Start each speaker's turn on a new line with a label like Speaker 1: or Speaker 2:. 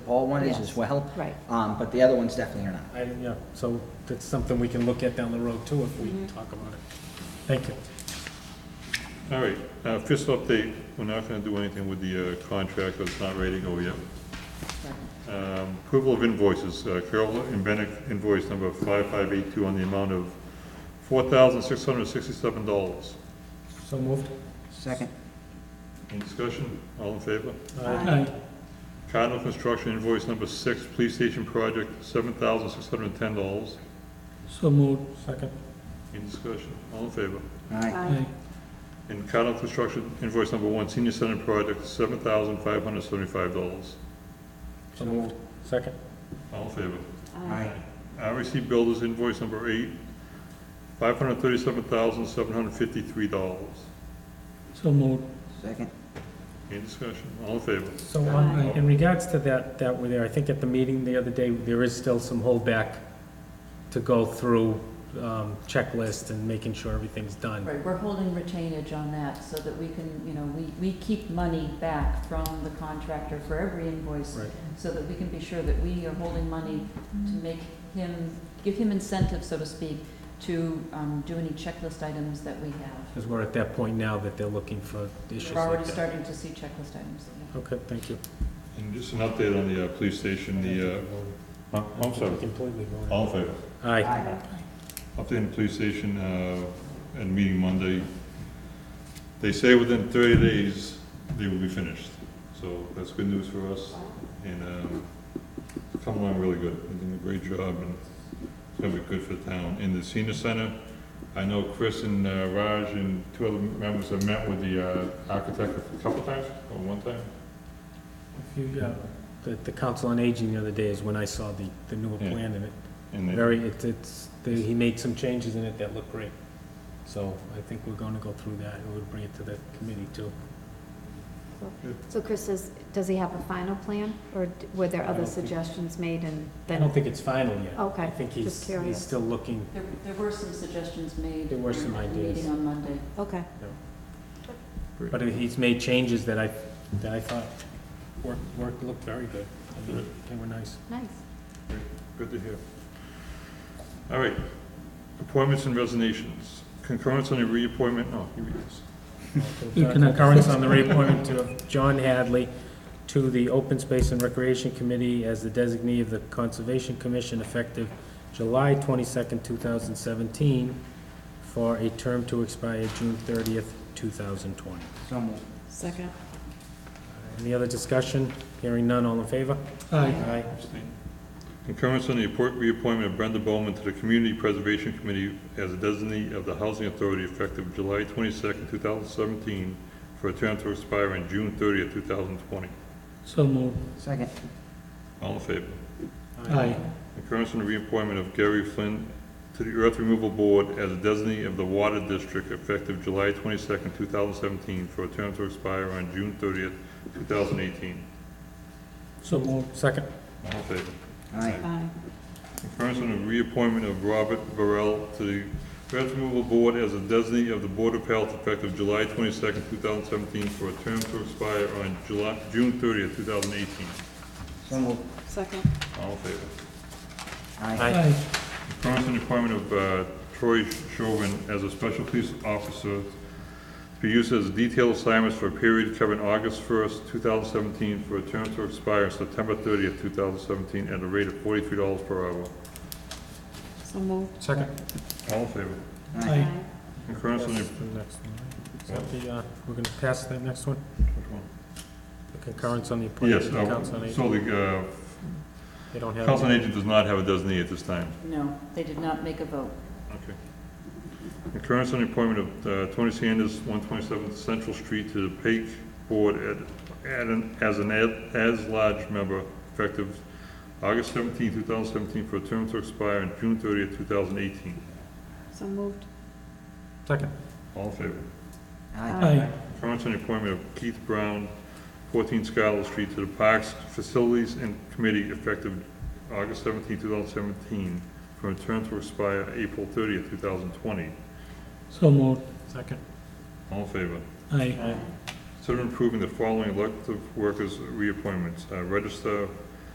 Speaker 1: Paul one is
Speaker 2: Yes,
Speaker 1: as well.
Speaker 2: right.
Speaker 1: Um, but the other ones definitely are not.
Speaker 3: I, yeah, so that's something we can look at down the road too if we
Speaker 2: Mm-hmm.
Speaker 3: talk about it. Thank you.
Speaker 4: All right, uh, fiscal update, we're not gonna do anything with the uh, contract, it's not ready to go yet. Um, Approval of invoices, Uh, Carol and Bennett invoice number 5582 on the amount of $4,667.
Speaker 3: So moved.
Speaker 1: Second,
Speaker 4: Any discussion? All in favor?
Speaker 3: Aye.
Speaker 4: Cardinal Construction invoice number six, police station project, $7,610.
Speaker 3: So moved. Second.
Speaker 4: Any discussion? All in favor?
Speaker 1: aye,
Speaker 3: Aye.
Speaker 4: And Cardinal Construction invoice number one, senior center project, $7,575.
Speaker 3: So moved. Second.
Speaker 4: All in favor?
Speaker 1: aye,
Speaker 4: REC Builders invoice number eight, five hundred thirty-seven thousand, seven hundred fifty-three dollars.
Speaker 3: So moved.
Speaker 1: second,
Speaker 4: Any discussion? All in favor?
Speaker 3: So on, in regards to that, that were there, I think at the meeting the other day, there is still some holdback to go through, um, checklist and making sure everything's done.
Speaker 2: Right, we're holding retainage on that so that we can, you know, we, we keep money back from the contractor for every invoice
Speaker 3: Right.
Speaker 2: so that we can be sure that we are holding money to make him, give him incentive, so to speak, to, um, do any checklist items that we have.
Speaker 3: Because we're at that point now that they're looking for issues
Speaker 2: We're already
Speaker 3: like that.
Speaker 2: starting to see checklist items. yeah.
Speaker 3: Okay, thank you.
Speaker 4: And just an update on the, uh, police station, the, uh, huh? I'm sorry,
Speaker 3: Completely
Speaker 4: all in favor?
Speaker 3: Aye.
Speaker 1: aye,
Speaker 4: Update on the police station, uh, at a meeting Monday. They say within thirty days, they will be finished, so that's good news for us, and, um, it's come along really good, they're doing a great job, and it's gonna be good for the town. In the senior center, I know Chris and uh, Raj and two other members have met with the, uh, architect a couple times, or one time?
Speaker 3: If you, uh, The, the council on aging the other day is when I saw the, the newer
Speaker 4: Yeah.
Speaker 3: plan and it
Speaker 4: And they-
Speaker 3: Very, it's, it's, they- he made some changes in it that look great. So I think we're gonna go through that, and we'll bring it to the committee too.
Speaker 5: So Chris says, does he have a final plan, or d- were there
Speaker 3: I don't
Speaker 5: other
Speaker 3: think-
Speaker 5: suggestions made and
Speaker 3: I don't
Speaker 5: then?
Speaker 3: think it's final yet.
Speaker 5: Okay,
Speaker 3: I think
Speaker 5: just
Speaker 3: he's, he's
Speaker 5: curious.
Speaker 3: still looking,
Speaker 2: There, there were some suggestions made.
Speaker 3: There were some
Speaker 2: at the
Speaker 3: ideas.
Speaker 2: Meeting on Monday.
Speaker 5: Okay,
Speaker 3: but he's made changes that I, that I thought worked, worked, looked very good. I mean, They were nice.
Speaker 5: nice.
Speaker 4: Good to hear. All right, appointments and resignations. Concurrence on the reappointment, oh, here he is.
Speaker 3: Concurrence on the reappointment of John Hadley to the Open Space and Recreation Committee as the designee of the Conservation Commission effective July twenty-second, two thousand seventeen, for a term to expire June thirtieth, two thousand twenty.
Speaker 1: so moved,
Speaker 2: Second.
Speaker 3: Any other discussion? Hearing none, all in favor? Aye.
Speaker 4: Abstain. Concurrence on the appoint- reappointment of Brenda Bowman to the Community Preservation Committee as a designee of the Housing Authority effective July twenty-second, two thousand seventeen, for a term to expire in June thirtieth, two thousand twenty.
Speaker 3: So moved.
Speaker 1: second,
Speaker 4: All in favor?
Speaker 3: Aye.
Speaker 4: Concurrence on the reappointment of Gary Flynn to the Earth Removal Board as a designee of the Water District effective July twenty-second, two thousand seventeen, for a term to expire on June thirtieth, two thousand eighteen.
Speaker 3: So moved. Second.
Speaker 4: All in favor?
Speaker 1: aye,
Speaker 5: Aye.
Speaker 4: Concurrence on the reappointment of Robert Burrell to the Earth Removal Board as a designee of the Board of Health effective July twenty-second, two thousand seventeen, for a term to expire on July, June thirtieth, two thousand eighteen.
Speaker 1: so moved,
Speaker 5: Second.
Speaker 4: All in favor?
Speaker 1: aye,
Speaker 4: Concurrent in the appointment of uh, Troy Chauvin as a special police officer to be used as a detailed assignment for a period covering August 1st, 2017, for a term to expire September 30th, 2017, at a rate of $43 per hour.
Speaker 5: So moved.
Speaker 3: Second.
Speaker 4: All in favor?
Speaker 1: aye,
Speaker 4: Concurrent in the...
Speaker 3: That's the next one, right? Is that the, uh, we're gonna pass the next one?
Speaker 4: which one?
Speaker 3: The concurrence on the appointment of
Speaker 4: Yes,
Speaker 3: the council on
Speaker 4: uh,
Speaker 3: aging.
Speaker 4: so the
Speaker 3: They don't
Speaker 4: uh,
Speaker 3: have.
Speaker 4: council on agent does not have a designee at this time.
Speaker 2: No, they did not make a vote.
Speaker 4: Okay. Concurrence on the appointment of uh, Tony Sanders, 127 Central Street, to the PAIC Board at- at an- as an ad- as-large member effective August 17, 2017, for a term to expire on June 30, 2018.
Speaker 5: So moved.
Speaker 3: Second.
Speaker 4: All in favor?
Speaker 1: aye,
Speaker 4: Concurrence on the appointment of Keith Brown, 14 Skylar Street, to the Parks Facilities and Committee effective August 17, 2017, for a term to expire April 30, 2020.
Speaker 3: So moved. Second.
Speaker 4: All in favor?
Speaker 3: Aye.
Speaker 4: Consider approving the following elective workers reappointments. Uh, Register